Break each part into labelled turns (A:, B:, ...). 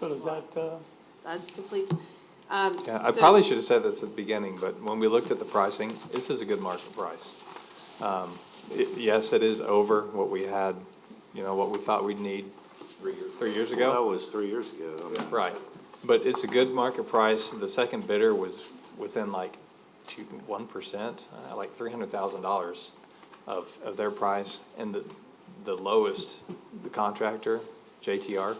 A: So does that, uh,
B: That's complete. Um,
C: Yeah, I
B: so-
C: probably should have said this at the beginning, but when we looked at the pricing, this is a good market price. Um, i yes, it is over what we had, you know, what we thought we'd need three years ago.
D: That was three years ago. I mean,
C: Right, but it's a good market price, the second bidder was within like two, one percent, uh, like three hundred thousand dollars of, of their price, and the, the lowest, the contractor, JTR,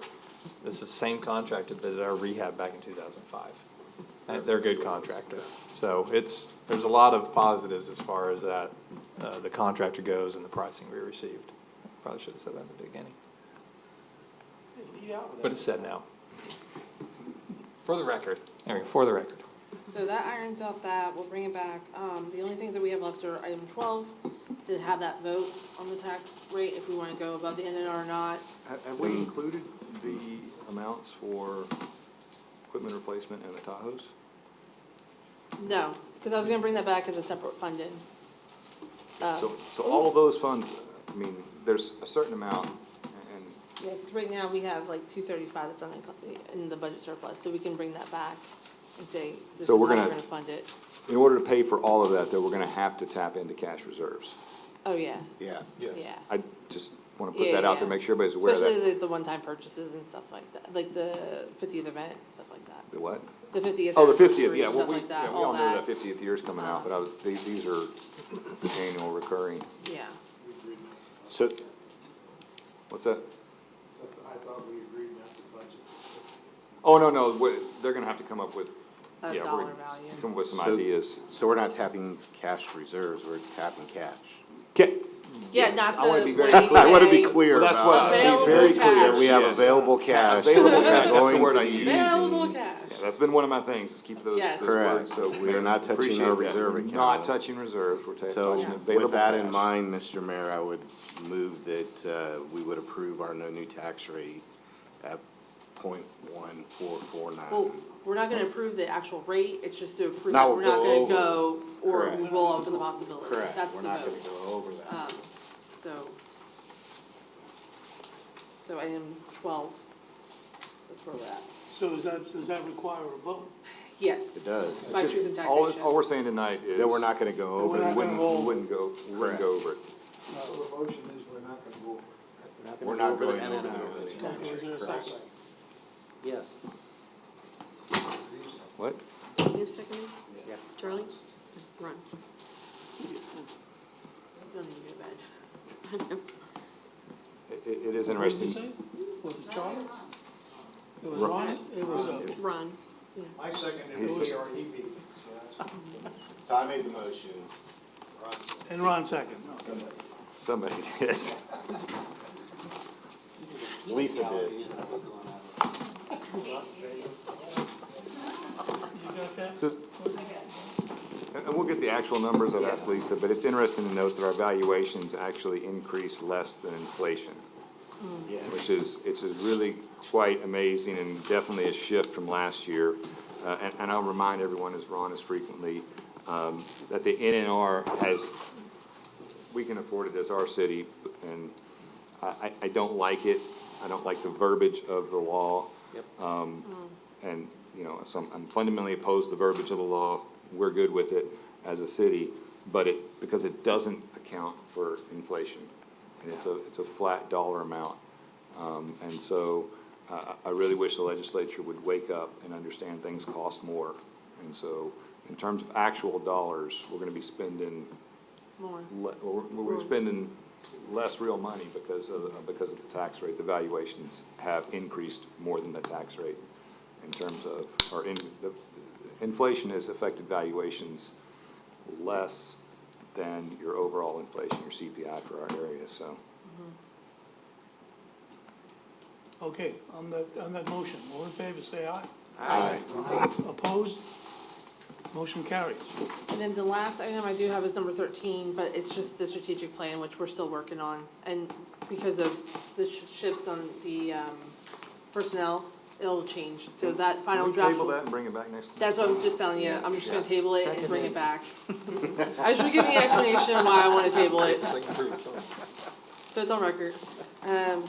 C: this is the same contractor that did our rehab back in two thousand five. And they're a good contractor, so it's, there's a lot of positives as far as that, uh, the contractor goes and the pricing we received. Probably should have said that in the beginning, but it's said now. For the record, there we go, for the record.
B: So that irons out that, we'll bring it back. Um, the only things that we have left are item twelve, to have that vote on the tax rate, if we wanna go above the NNR or not.
E: Have, have we included the amounts for equipment replacement and the Tahoes?
B: No, cause I was gonna bring that back as a separate funding. Uh,
E: So, so all of those funds, I mean, there's a certain amount and
B: yeah, 'cause right now we have like two thirty-five that's unencumbered in the budget surplus, so we can bring that back and say, this is
E: So
B: how
E: we're
B: we're
E: gonna-
B: gonna fund it.
E: in order to pay for all of that, though, we're gonna have to tap into cash reserves.
B: Oh, yeah,
E: Yeah.
B: yeah.
E: I just wanna put
B: Yeah,
E: that out there,
B: yeah.
E: make sure everybody's aware of that.
B: Especially the, the one-time purchases and stuff like that, like the fiftieth event, stuff like that.
E: The what?
B: The fiftieth.
E: Oh, the fiftieth, yeah, well, we, yeah, we all know that fiftieth year's coming out, but I was, these, these are annual recurring.
B: Yeah,
D: So,
E: What's that?
F: Except that I thought we agreed not to budget.
E: Oh, no, no, we- they're gonna have to come up with,
B: A
E: yeah, we're
B: dollar
E: gonna s-
B: value.
E: come up with some
D: So-
E: ideas.
D: so we're not tapping cash reserves, we're tapping cash.
B: yeah, not the.
E: I wanna be very
B: way
D: I wanna be
B: they-
D: clear
E: Well, that's what,
D: about,
E: I'll
B: Available
E: be very clear,
B: cash.
D: we have
E: yes.
D: available cash.
E: Available
D: that
E: cash,
D: we're
E: that's the
D: going
E: word
D: to
E: I
D: use.
E: use.
B: Available cash.
E: Yeah, that's been one of my things, is keep those,
B: Yes.
E: those
D: Correct.
E: words, so.
D: We are not touching our
E: appreciate that.
D: reserve account.
E: Not touching reserves, we're ta-
D: So
E: touching available
D: with that in
E: cash.
D: mind, Mr. Mayor, I would move that uh, we would approve our no new tax rate at point one four four
B: Well,
D: nine.
B: we're not gonna approve the actual rate, it's just to approve
D: Now
B: that we're
D: we'll
B: not
D: go
B: gonna go, or
D: Correct.
B: we will open the possibility,
D: Correct,
B: that's the
D: we're not gonna
B: vote.
D: go over that.
B: Um, so. So item twelve, that's where we're at.
A: so does that, does that require a vote?
B: Yes.
D: It does.
B: By truth and
E: Just- all- All
B: taxation.
E: we're saying tonight is.
D: That we're not gonna go
A: we're not
D: over
E: We
D: that.
E: wouldn't,
A: roll.
E: we wouldn't go, we
D: Correct.
E: wouldn't go over it.
F: So the motion is we're not gonna go over. it.
D: We're not going
G: and
D: over
G: then
D: that.
A: Okay, is there a second?
G: Yes.
E: What?
B: You second?
G: Yeah.
B: Charlie? Run. Don't even get a badge.
E: It,
A: What
E: it is
A: did you
E: interesting.
A: say? Was it Charlie? It was Ron, it was, uh,
B: Run.
F: My second
E: He
F: is
E: said-
F: really our EB, so that's.
D: So I made the motion.
A: and Ron second, okay.
E: Somebody did.
D: Lisa did.
A: You got that?
E: So, and and we'll get the actual numbers, I've asked Lisa, but it's interesting to note that our valuations actually increase less than inflation. Which is, it's is really quite amazing and definitely a shift from last year. Uh, and, and I'll remind everyone, as Ron has frequently, um, that the NNR has, we can afford it as our city, and I, I, I don't like it. I don't like the verbiage of the law. And, you know, so I'm- I'm fundamentally opposed to the verbiage of the law. We're good with it as a city, but it, because it doesn't account for inflation. And it's a, it's a flat dollar amount. Um, and so I, I I really wish the legislature would wake up and understand things cost more. And so in terms of actual dollars, we're gonna be spending,
B: More.
E: le- or we're we're spending less real money because of, because of the tax rate. The valuations have increased more than the tax rate in terms of, or in, the, inflation has affected valuations less than your overall inflation, your CPI for our area, so.
A: Okay, on that, on that motion, all in favor, say aye.
D: Aye.
A: Opposed? Motion carries.
B: And then the last item I do have is number thirteen, but it's just the strategic plan, which we're still working on. And because of the sh- shifts on the, um, personnel, it'll change. So that final draft.
E: Table
B: will-
E: that and bring it back next.
B: That's what I'm just telling you. I'm just gonna table it and bring it back. I should be giving you an explanation why I wanna table it,
C: Second approved.
B: so it's on record. Um,